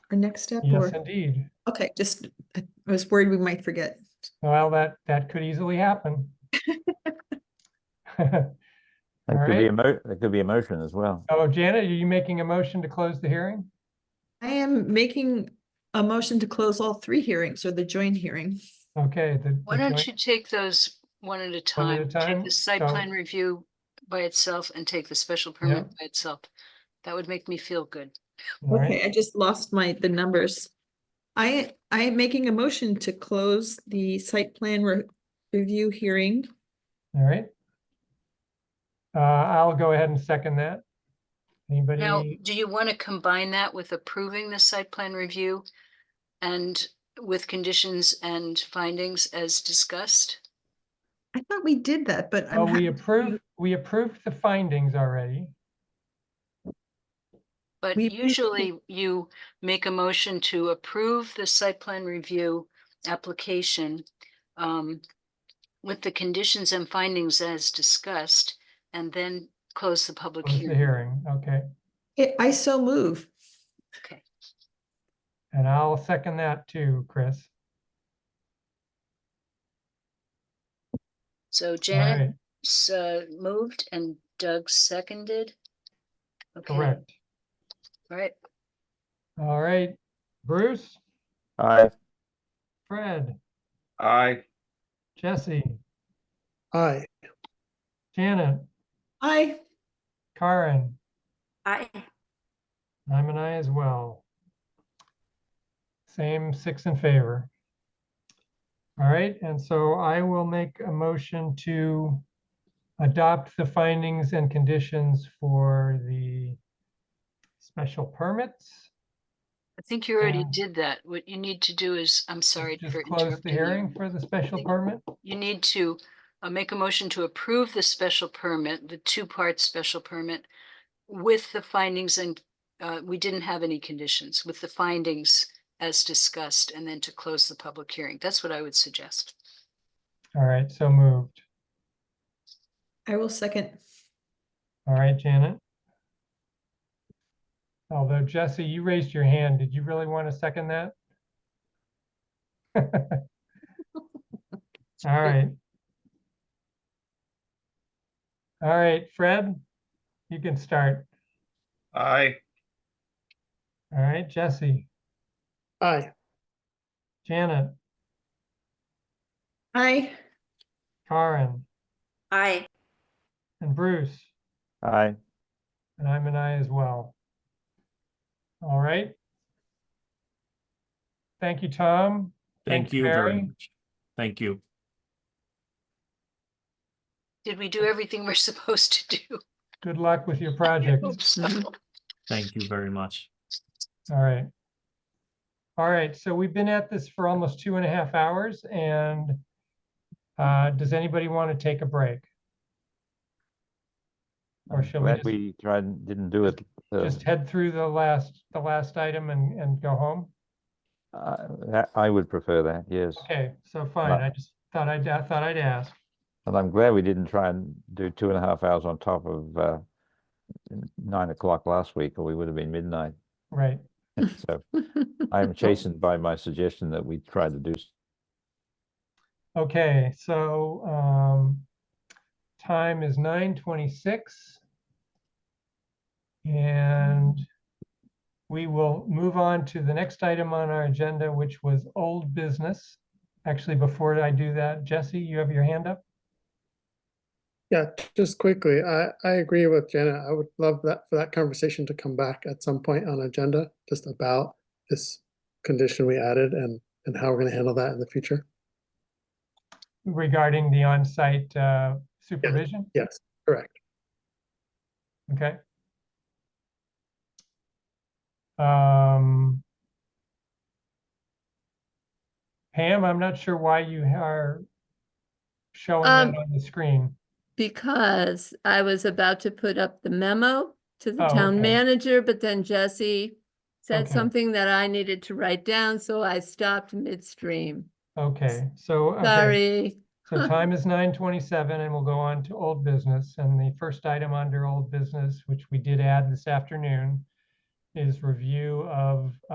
our next step Yes, or, indeed. okay, just, I I was worried we might forget. Well, that, that could easily happen. That All could be right. emo, that could be emotion as well. Oh, Janet, are you making a motion to close the hearing? I am making a motion to close all three hearings or the joint hearing. Okay. the- the Why don't joint- you take those one at a One at a time? Take time, the site so- plan review by itself and take the special permit by itself. That would make me feel good. all right. Okay, I just lost my, the numbers. I, I am making a motion to close the site plan re- review hearing. All right. Uh, I'll go ahead and second that. Now, Anybody? do you want to combine that with approving the site plan review? And with conditions and findings as discussed? I thought we did that, but Oh, I'm, we hap- approved, we approved the findings already. But We approve the- usually you make a motion to approve the site plan review application um, with the conditions and findings as discussed, and then close the public Close the hearing, hearing. okay. I- I so move. Okay, And I'll second that too, Chris. so All Janet right, s- uh, moved and Doug seconded. Okay, all correct. right, All right, Bruce, Aye. Fred, Aye, Jesse, Aye, Janet, I, Karen, I, I'm an I as well. Same six in favor. All right, and so I will make a motion to adopt the findings and conditions for the special permits. I think you already Yeah. did that. What you need to do is, I'm sorry Um, Just for close the interrupting you. hearing for the special Thank- permit. You need to uh, make a motion to approve the special permit, the two-part special permit with the findings and, uh, we didn't have any conditions, with the findings as discussed, and then to close the public hearing. That's what I would suggest. All right, so moved. I will second. All right, Janet. Although Jesse, you raised your hand. Did you really want to second that? All right. All right, Fred, you can start. aye, All right, Jesse, aye, Janet, I, Karen, I, and Bruce, Aye. and I'm an I as well. All right. Thank you, Tom. Thank you very Barry. much. Thank you. Did we do everything we're supposed to do? Good luck with your I project. hope so. Thank you very much. All right. All right, so we've been at this for almost two and a half hours and uh, does anybody want to take a break? Or I'm shall we Glad just- we tried, and didn't do it. uh, Just head through the last, the last item and, and go home? I- uh, that- I would prefer that, yes. Okay, so fine. I just thought I'd, I thought I'd ask. And I'm glad we didn't try and do two and a half hours on top of uh, n- nine o'clock last week, or we would have been midnight. Right. So I'm chastened by my suggestion that we try to do s- Okay, so um, time is nine twenty-six. And we will move on to the next item on our agenda, which was old business. Actually, before I do that, Jesse, you have your hand up? yeah, just quickly, I, I agree with Janet, I would love that, for that conversation to come back at some point on agenda, just about this condition we added and, and how we're gonna handle that in the future, Regarding the on-site uh, supervision? yes, correct. Okay. Um. Pam, I'm not sure why you are showing that Um, on the screen. Because I was about to put up the memo to the Oh, okay. town manager, but then Jesse said Okay. something that I needed to write down, so I stopped midstream. Okay, so. okay, Sorry. So time is nine twenty-seven and we'll go on to old business. And the first item under old business, which we did add this afternoon, is review of